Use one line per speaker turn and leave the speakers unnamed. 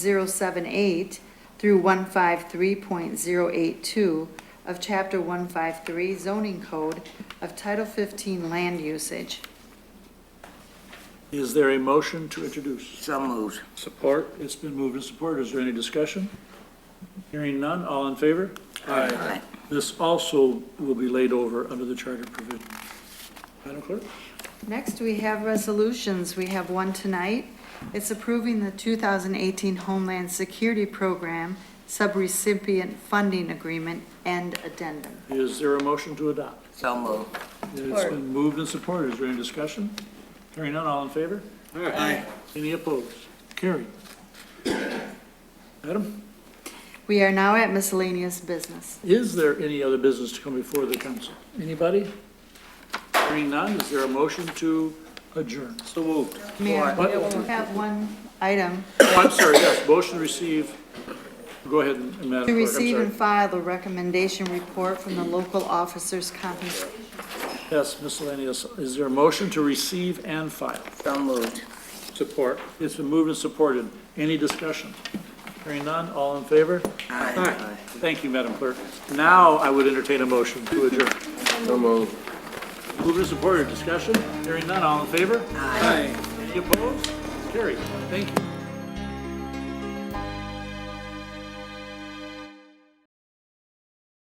078 through 153.082 of Chapter 153 zoning code of Title 15 land usage.
Is there a motion to introduce?
So moved.
Support. It's been moved and supported. Is there any discussion? Hearing none, all in favor?
Aye.
This also will be laid over under the charter provision. Madam Clerk?
Next, we have resolutions. We have one tonight. It's approving the 2018 Homeland Security Program Subrecipient Funding Agreement and Addendum.
Is there a motion to adopt?
So moved.
It's been moved and supported. Is there any discussion? Hearing none, all in favor?
Aye.
Any opposed? Carried. Madam,
We are now at miscellaneous business.
is there any other business to come before the council? Anybody? Hearing none, is there a motion to adjourn? So moved.
Mayor,
What?
we have one item.
Oh, I'm sorry, yes, motion to receive, go ahead, Madam Clerk,
To
I'm
receive
sorry.
and file the recommendation report from the local officers' compensation.
Yes, miscellaneous, is there a motion to receive and file?
So moved.
Support. It's been moved and supported, any discussion? Hearing none, all in favor?
Aye.
Thank you, Madam Clerk. Now I would entertain a motion to adjourn.
So moved.
Moved and supported, discussion? Hearing none, all in favor? Aye. Any opposed? Carried, thank you.